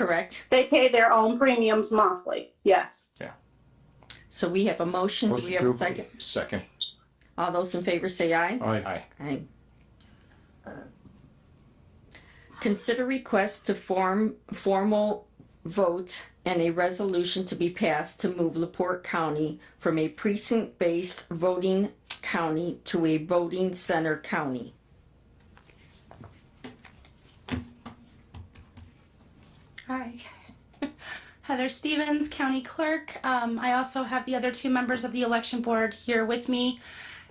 correct? They pay their own premiums monthly, yes. So we have a motion, do we Motion have a to approve. second? Second. All those in favor say aye. Aye. Aye. Aye. Consider request to form formal vote and a resolution to be passed to move Laporte County from a precinct-based voting county to a voting center county. Hi. Heather Stevens, County Clerk. Um, I also have the other two members of the election board here with me.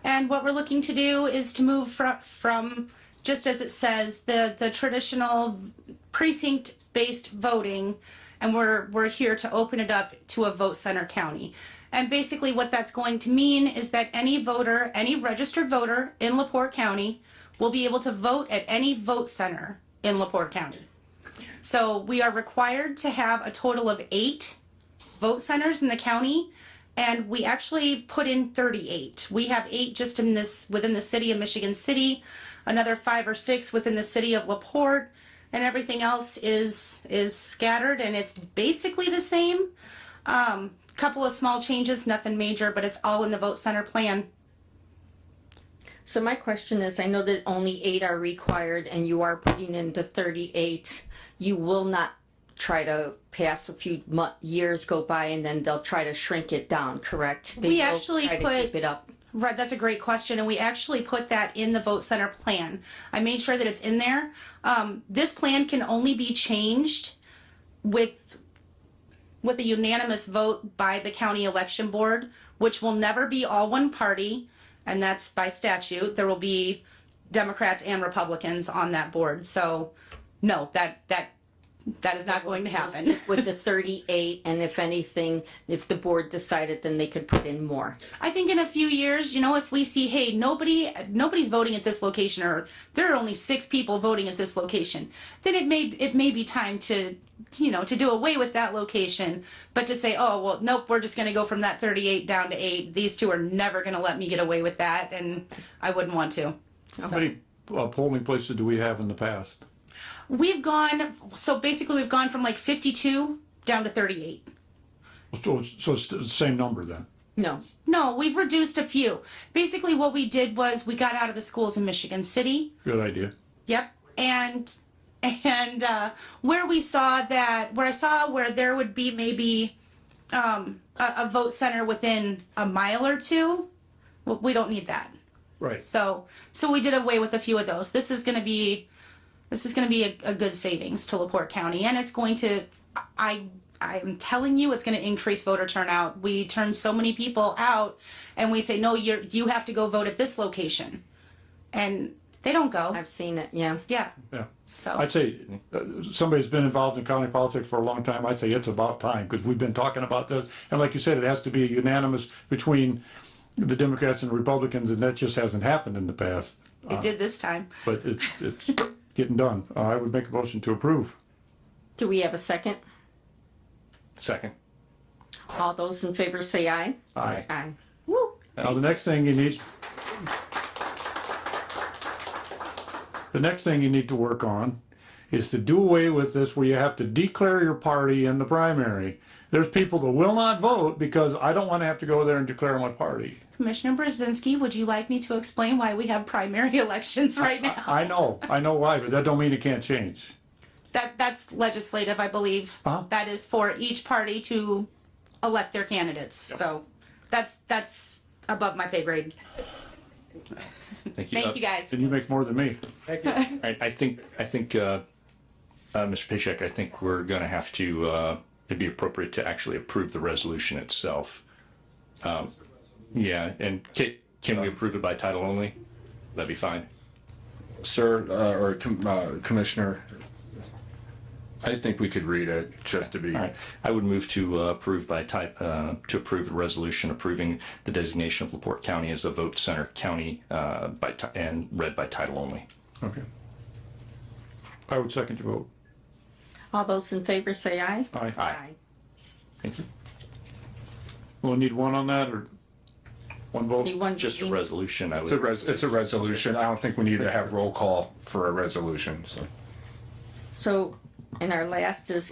And what we're looking to do is to move from, from, just as it says, the, the traditional precinct-based voting. And we're, we're here to open it up to a vote center county. And basically what that's going to mean is that any voter, any registered voter in Laporte County will be able to vote at any vote center in Laporte County. So we are required to have a total of eight vote centers in the county. And we actually put in 38. We have eight just in this, within the city of Michigan City, another five or six within the city of LaPorte. And everything else is, is scattered and it's basically the same. Um, couple of small changes, nothing major, but it's all in the vote center plan. So my question is, I know that only eight are required and you are putting in the thirty-eight. You will not try to pass a few mu- years go by and then they'll try to shrink it down, correct? They We will actually try to put- Keep it up. Right, that's a great question, and we actually put that in the vote center plan. I made sure that it's in there. Um, this plan can only be changed with with a unanimous vote by the county election board, which will never be all one party, and that's by statute. There will be Democrats and Republicans on that board. So, no, that that that is not going to happen. With the thirty-eight, and if anything, if the board decided, then they could put in more. I think in a few years, you know, if we see, hey, nobody, nobody's voting at this location, or there are only six people voting at this location, then it may, it may be time to, you know, to do away with that location, but to say, oh, well, nope, we're just going to go from that 38 down to eight. These two are never going to let me get away with that, and I wouldn't want to. How many uh, polling places do we have in the past? We've gone, so basically, we've gone from like 52 down to 38. So, so it's the same number then? No, No, we've reduced a few. Basically, what we did was we got out of the schools in Michigan City. Good idea. Yep. And and uh, where we saw that, where I saw where there would be maybe um, a, a vote center within a mile or two, w- we don't need that. Right. So so we did away with a few of those. This is going to be this is going to be a, a good savings to Laporte County, and it's going to I I'm telling you it's going to increase voter turnout. We turn so many people out, and we say no, you you have to go vote at this location, and they don't go. I've seen it, yeah. Yeah. Yeah. So I'd say uh, somebody's been involved in county politics for a long time. I'd say it's about time because we've been talking about this. And like you said, it has to be unanimous between the Democrats and Republicans, and that just hasn't happened in the past. it did this time. But it's, it's getting done. Uh, I would make a motion to approve. Do we have a second? Second. All those in favor say aye. Aye. Aye. Now, the next thing you need. The next thing you need to work on is to do away with this where you have to declare your party in the primary. There's people that will not vote because I don't want to have to go there and declare my party. Commissioner Brzezinski, would you like me to explain why we have primary elections right now? I know, I know why, but that don't mean it can't change. That that's legislative, I believe. Uh-huh. That is for each party to elect their candidates. So that's that's above my pay grade. Thank you. Thank Uh, you guys. And you make more than me. All right, I think, I think, uh, uh, Mr. Paycheck, I think we're gonna have to, uh, it'd be appropriate to actually approve the resolution itself. Um, Yeah, and ca- can we approve it by title only? That'd be fine. Sir, uh, or com- uh, Commissioner, I think we could read it just to be. All right, I would move to uh, approve by type, uh, to approve a resolution approving the designation of Laporte County as a vote center county, uh, by, ti- and read by title only. Okay. I would second your vote. All those in favor say aye. Aye. Aye. Thank you. We'll need one on that or one vote? Anyone? Just a resolution, I It's a, would, res- it's a resolution. I don't think we need to have roll call for a resolution, so. So, and our last is